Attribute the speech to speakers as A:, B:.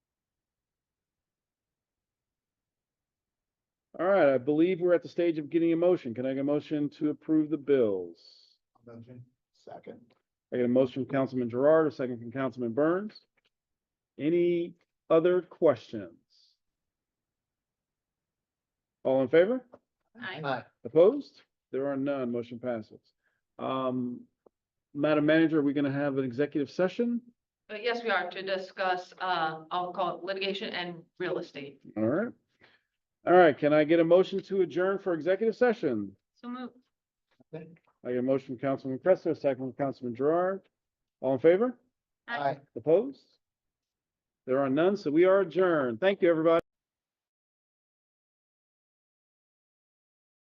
A: All right, I believe we're at the stage of getting a motion. Can I get a motion to approve the bills?
B: Motion. Second.
A: I get a motion from Councilman Gerard, a second from Councilman Burns. Any other questions? All in favor?
C: Aye.
B: Aye.
A: Opposed? There are none. Motion passes. Um, Madam Manager, are we gonna have an executive session?
C: Uh, yes, we are to discuss, uh, I'll call it litigation and real estate.
A: All right. All right, can I get a motion to adjourn for executive session?
C: So move.
B: Second.
A: I get a motion from Councilman Cressler, a second from Councilman Gerard. All in favor?
B: Aye.
A: Opposed? There are none, so we are adjourned. Thank you, everybody.